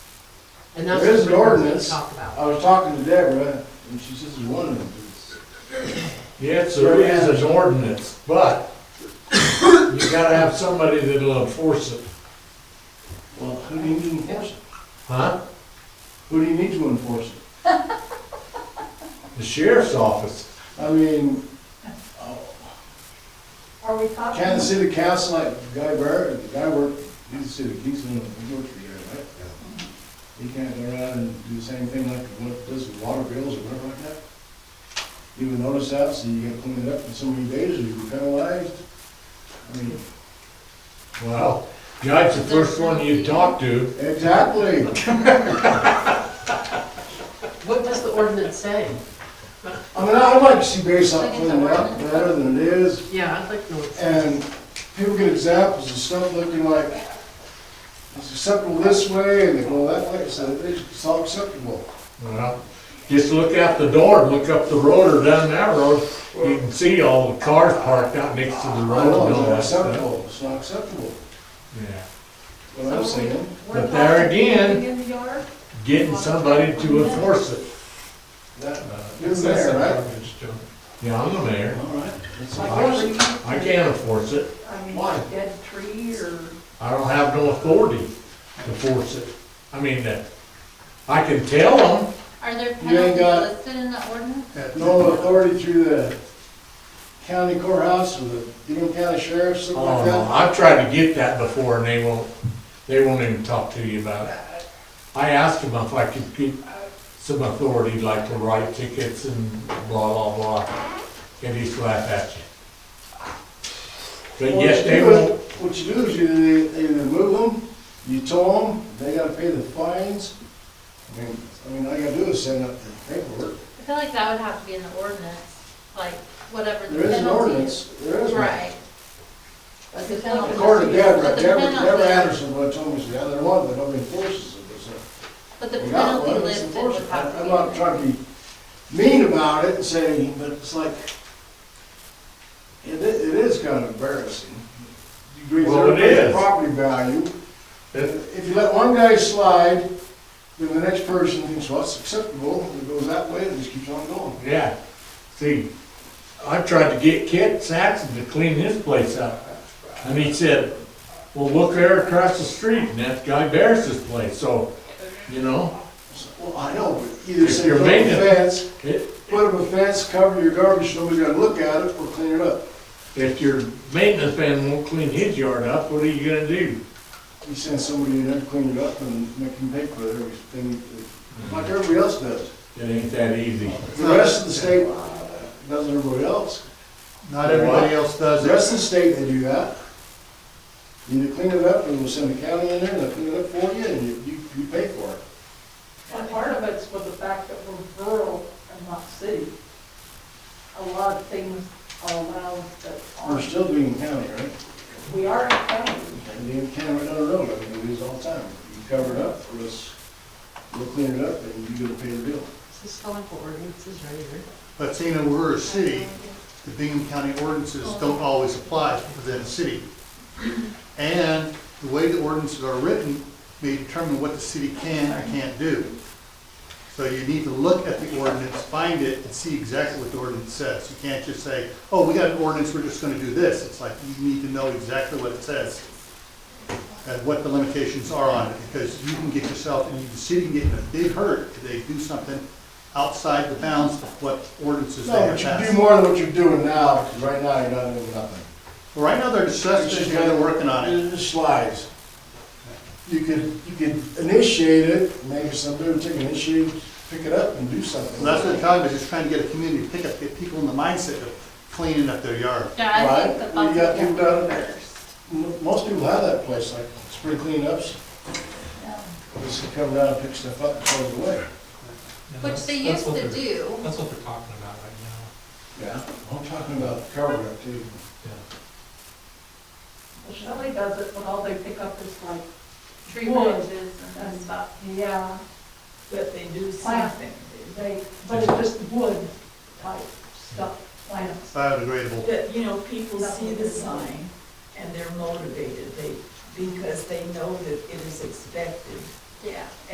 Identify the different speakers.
Speaker 1: And that's
Speaker 2: There is
Speaker 1: what
Speaker 2: an
Speaker 1: we
Speaker 2: ordinance,
Speaker 1: Talk about.
Speaker 2: I was talking to Deborah, and she says there's one of them.
Speaker 3: Yes, there is an ordinance, but you gotta have somebody that'll enforce it,
Speaker 2: Well, who do you need to enforce it?
Speaker 3: huh?
Speaker 2: Who do you need to enforce it?
Speaker 3: The sheriff's office.
Speaker 2: I mean, oh,
Speaker 4: Are we talking?
Speaker 2: can the city council, like Guy Barrett, the guy worked, he's a city, he's one of the, he worked for you, right? He can't go around and do the same thing like what does with water bills or whatever like that? You would notice that, so you gotta clean it up in so many days, or you'd be penalized. I mean,
Speaker 3: Well, Judge, the first one you talk to,
Speaker 2: exactly.
Speaker 1: What does the ordinance say?
Speaker 2: I mean, I'd like to see Bayside cleaned up better than it is.
Speaker 1: Yeah, I'd like to know. what it says.
Speaker 2: And people get examples of stuff looking like, it's acceptable this way, and they go that way, so it's all acceptable.
Speaker 3: well, just look out the door, look up the road or down that road. You can see all the cars parked out next to the
Speaker 2: I
Speaker 3: road
Speaker 2: know,
Speaker 3: and
Speaker 2: it's
Speaker 3: all
Speaker 2: not
Speaker 3: that stuff.
Speaker 2: acceptable, it's not acceptable,
Speaker 3: Yeah,
Speaker 2: what I'm saying.
Speaker 4: We're
Speaker 3: But there
Speaker 4: talking
Speaker 3: again-
Speaker 4: cleaning In the yard?
Speaker 3: getting somebody to enforce it.
Speaker 2: That,
Speaker 3: Uh,
Speaker 2: you're the mayor, right?
Speaker 3: Yeah, I'm the mayor.
Speaker 2: All right. That's
Speaker 4: Like
Speaker 2: all.
Speaker 4: every-
Speaker 3: I can't enforce it.
Speaker 4: I mean,
Speaker 3: Why?
Speaker 4: dead tree or,
Speaker 3: I don't have no authority to force it. I mean, uh, I can tell them,
Speaker 5: Are there
Speaker 2: You ain't
Speaker 5: penalties
Speaker 2: got-
Speaker 5: listed in the ordinance?
Speaker 2: No authority through the county courthouse or the Dean County Sheriff, something
Speaker 3: oh
Speaker 2: like
Speaker 3: no,
Speaker 2: that.
Speaker 3: I've tried to get that before and they won't, they won't even talk to you about it. I asked them if I could get some authority, like to write tickets and blah, blah, blah, and he's laugh at you. But
Speaker 2: What
Speaker 3: yes,
Speaker 2: you
Speaker 3: they
Speaker 2: do is-
Speaker 3: won't,
Speaker 2: What you do is you either- either move them, you tow them, they gotta pay the fines. I mean, I mean, all you gotta do is send up the paperwork.
Speaker 5: I feel like that would have to be in the ordinance, like whatever the
Speaker 2: There is an
Speaker 5: penalty
Speaker 2: ordinance,
Speaker 5: is.
Speaker 2: there is one.
Speaker 5: Right. But the penalty.
Speaker 2: According to Deborah,
Speaker 5: But the
Speaker 2: Deborah,
Speaker 5: penalty-
Speaker 2: Deborah Anderson, what told me, she said, "Yeah, there was, but nobody enforces it, so.
Speaker 5: But the
Speaker 2: we got
Speaker 5: penalty
Speaker 2: one, it's
Speaker 5: listed would
Speaker 2: enforceable."
Speaker 5: have to
Speaker 2: I'm
Speaker 5: be.
Speaker 2: not
Speaker 5: in there.
Speaker 2: trying to be mean about it and saying, but it's like, it, i- it is kind of embarrassing. You agree with
Speaker 3: Well, it
Speaker 2: everybody's
Speaker 3: is.
Speaker 2: Property value,
Speaker 3: It-
Speaker 2: if you let one guy slide, then the next person thinks, well, it's acceptable, and it goes that way, and it just keeps on going.
Speaker 3: yeah. See, I tried to get Kent Saxon to clean his place up. And he said, well, look there across the street, and that's Guy Barris's place, so, you know,
Speaker 2: So, Well, I know, but either
Speaker 3: If
Speaker 2: say,
Speaker 3: you're
Speaker 2: put up a
Speaker 3: maintenance-
Speaker 2: fence,
Speaker 3: it,
Speaker 2: put up a fence, cover your garbage, nobody's gonna look at it, or clean it up.
Speaker 3: if your maintenance man won't clean his yard up, what are you gonna do?
Speaker 2: You send somebody in there to clean it up and make them pay for everything, like everybody else does.
Speaker 3: It ain't that easy.
Speaker 2: The rest of the state does not everybody else.
Speaker 6: Not everybody else does
Speaker 2: The
Speaker 6: it.
Speaker 2: rest of the state, they do that. You either clean it up, and we'll send the county in there, and they'll clean it up for you, and you, you- you pay for it.
Speaker 4: and part of it's with the fact that we're rural and not city. A lot of things are allowed that
Speaker 2: We're
Speaker 4: aren't,
Speaker 2: still doing county, right?
Speaker 4: we are in county.
Speaker 2: And the county right down the road, I mean, we do this all the time. You cover it up for us, we'll clean it up, and you're gonna pay the bill.
Speaker 1: This is how for ordinances right here.
Speaker 6: But seeing that we're a city, the Bingham County ordinances don't always apply within a city. And the way the ordinances are written may determine what the city can or can't do. So you need to look at the ordinance, find it, and see exactly what the ordinance says. You can't just say, oh, we got an ordinance, we're just gonna do this. It's like, you need to know exactly what it says and what the limitations are on it, because you can get yourself, and the city can get in a big hurt if they do something outside the bounds of what ordinances they
Speaker 2: No,
Speaker 6: have
Speaker 2: but you can do
Speaker 6: passed.
Speaker 2: more than what you're doing now, because right now, you're not doing nothing.
Speaker 6: Right now, they're
Speaker 2: It's
Speaker 6: discussing,
Speaker 2: just
Speaker 6: it, they're working on it.
Speaker 2: It just slides. You could, you could initiate it, maybe somebody would take initiative, pick it up and do something.
Speaker 6: And that's what they're talking about, just trying to get a community pick up, get people in the mindset of cleaning up their yard.
Speaker 5: Yeah, I think the
Speaker 2: Right, we got
Speaker 5: buses
Speaker 2: people
Speaker 5: have
Speaker 2: down
Speaker 5: to be
Speaker 2: there.
Speaker 5: first.
Speaker 2: M- Most people have that place, like spring cleanups, they just come down, pick stuff up and throw it away.
Speaker 5: Which they used to do.
Speaker 7: That's what they're talking about right now.
Speaker 2: Yeah. I'm talking about covering it too.
Speaker 4: Well, Shelley does it, but all they pick up is like,
Speaker 5: Tree
Speaker 4: Wood.
Speaker 5: branches and stuff.
Speaker 4: yeah,
Speaker 8: But they do
Speaker 4: Plant.
Speaker 8: something.
Speaker 4: they, but it's just wood type stuff, plants.
Speaker 6: Biodegradable.
Speaker 8: But, you know, people see the sign and they're motivated, they, because they know that it is expected.
Speaker 5: Yeah.